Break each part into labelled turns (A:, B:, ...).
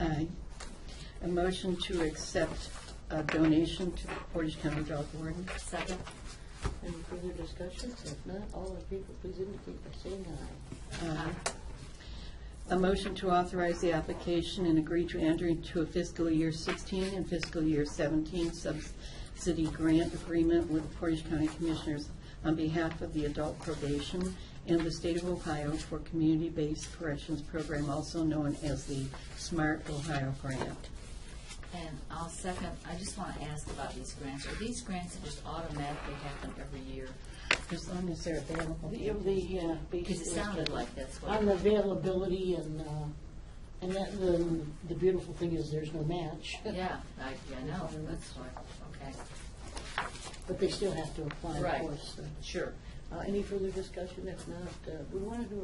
A: Aye. A motion to accept a donation to the Portage County Dog Warden.
B: Second.
C: Any further discussions? If not, all in favor, please indicate by saying aye.
A: Aye. A motion to authorize the application and agree to enter into a fiscal year 16 and fiscal year 17 subsidy grant agreement with the Portage County Commissioners on behalf of the adult probation and the state of Ohio for community-based corrections program, also known as the Smart Ohio Grant.
B: And I'll second, I just want to ask about these grants. Are these grants that just automatically happen every year?
A: As long as they're available.
C: The, the, uh,
B: Because it
C: basis-
B: sounded like that's what.
C: On the availability and, uh, and that, the, the beautiful thing is there's no match,
B: Yeah, I, yeah, no, that's what, okay.
C: but they still have to apply, of
B: Right.
C: course. so.
B: Sure.
C: Uh, Any further discussion? If not, uh, we want to do,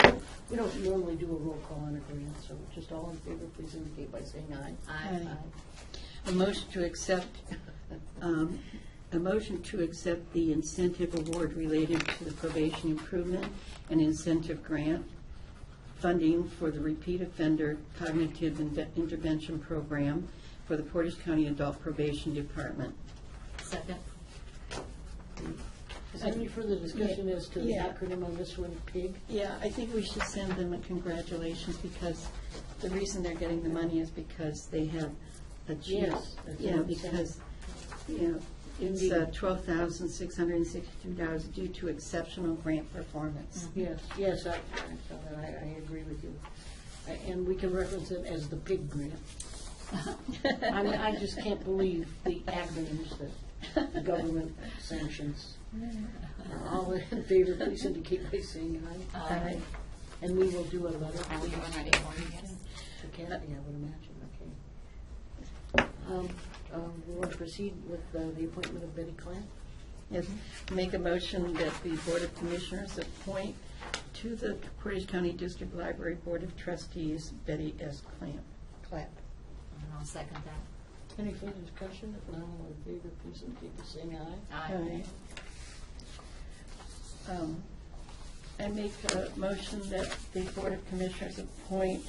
C: a- we don't normally do a roll call on agreements, so just all in favor, please indicate by saying aye.
B: I,
A: Aye. A motion to accept, um, a motion to accept the incentive award related to the probation improvement and incentive grant funding for the repeat offender cognitive Inve- intervention program for the Portage County Adult Probation Department.
B: second,
C: Is there any further discussion as to the
A: Yeah.
C: acronym on this one, PIG?
A: Yeah, I think we should send them a congratulations because the reason they're getting the money is because they have achieved.
C: Yes, that's
A: Yeah,
C: what I'm saying.
A: because, you know, it's twelve thousand six hundred and sixty-two dollars due to exceptional grant performance.
C: Yes, yes, I, I saw that. I, I agree with you. I- And we can reference it as the PIG grant. I mean, I just can't believe the acronyms that the government sanctions. Uh, All in favor, please indicate by saying aye.
B: Aye.
C: And we will do a letter.
B: are we doing ready for you guys?
C: To Kathy, I would imagine, okay. Um, um, We want to proceed with uh, the appointment of Betty Clamp.
A: Yes, make a motion that the Board of Commissioners appoint to the Portage County District Library Board of Trustees Betty S. Clamp.
C: Clamp.
B: And I'll second that.
C: Any further discussion? If not, all in favor, please indicate by saying aye.
B: Aye.
A: Um, I make a motion that the Board of Commissioners appoint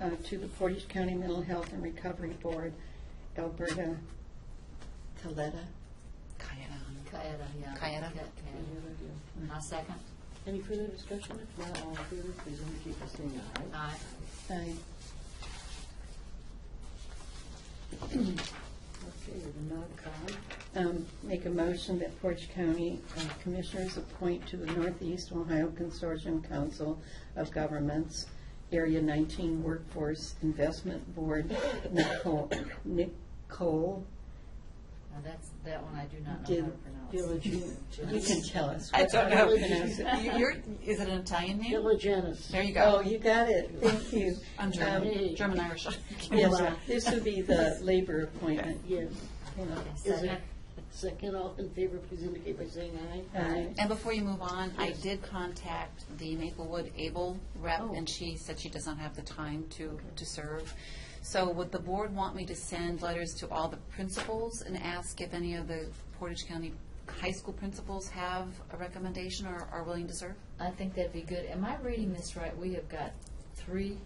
A: uh, to the Portage County Mental Health and Recovery Board Alberta Taletta.
B: Kaeda, yeah.
D: Kaeda.
B: Ka- Kaeda.
C: Any other deal?
B: I'll second.
C: Any further discussion? If not, all in favor, please indicate by saying aye.
B: Aye.
A: Aye.
C: Okay, the non-con,
A: Um, Make a motion that Portage County uh, Commissioners appoint to the Northeast Ohio Consortium Council of Governments, Area 19 Workforce Investment Board, Nicole- Nicole,
B: Now, that's, that one I do not know
A: Did-
B: how to pronounce.
C: Diligent.
A: you can tell us.
D: I don't know.
A: how to pronounce it.
D: You- You're, is it an Italian name?
C: Diligenis.
D: There you
A: Oh,
D: go.
A: you got it, thank you.
D: I'm
A: Um,
D: German,
C: hey.
D: German Irish.
A: Yes, this would be the labor appointment.
C: Yes.
B: Okay,
C: Is
B: Second.
C: there second, all in favor, please indicate by saying aye.
A: Aye.
D: And before you move on, I did contact the Maplewood Able rep, and she said she does not have the time to, to serve. So would the board want me to send letters to all the principals and ask if any of the Portage County high school principals have a recommendation or are willing to serve?
B: I think that'd be good. Am I reading this right? We have got three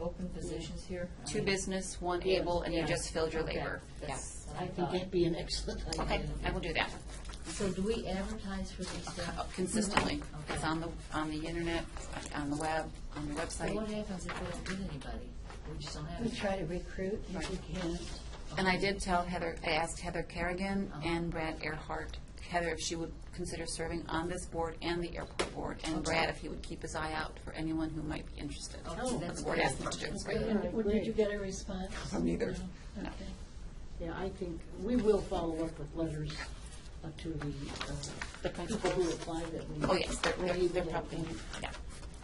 B: open positions here? I
D: Two
B: mean,
D: business, one able, and you
B: Um, yeah.
D: just filled your
B: Okay.
D: labor.
B: That's
D: Yes.
B: what
C: I think
B: thought.
C: that'd be an excellent
D: Okay,
C: idea.
D: I will do that.
B: So do we advertise for these? uh,
D: consistently. It's
B: Okay.
D: on the, on the internet, on the web, on the
B: So what
D: website.
B: happens if we don't get anybody? We just don't have.
A: We
B: any-
A: try to recruit, if we can.
D: And I did tell Heather, I asked Heather Kerrigan
B: Uh-huh.
D: and Brad Earhart, Heather if she would consider serving on this board and the airport board, and Brad if he would keep his eye out for anyone who might be interested.
B: Okay, Oh, that's
D: The board
B: good.
D: asked him to do it.
B: That's
D: Great.
B: good.
C: Yeah, I agree.
A: Did you get a response?
D: Neither.
A: Okay.
C: Yeah, I think, we will follow up with letters uh, to the, uh,
D: The
C: people who
D: principals.
C: apply that we.
D: Oh, yes, they're,
C: we're
D: they're
C: able
D: they're
C: to
D: probably, yeah.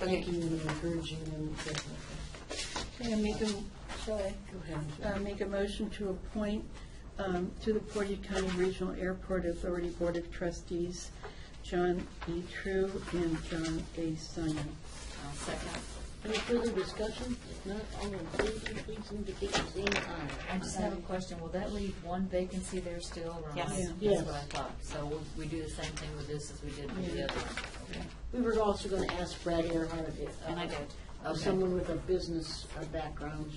D: Okay.
C: Thanking and encouraging them. to-
A: Can I make a, shall I?
C: Go ahead.
A: uh, make a motion to appoint um, to the Portage County Regional Airport Authority Board of Trustees, John E. True and John A. Simon.
B: I'll second.
C: Any further discussion? If not, all in favor, please indicate by saying aye.
B: I just have a question. Will that leave one vacancy there still, Ron?
D: Yes. Yeah.
B: That's
C: Yes.
B: what I thought. So we- we do the same thing with this as we did with the other one. Okay.
C: We were also going to ask Brad Earhart if. uh,
D: And I did.
C: of
B: Okay.
C: someone with a business uh, background,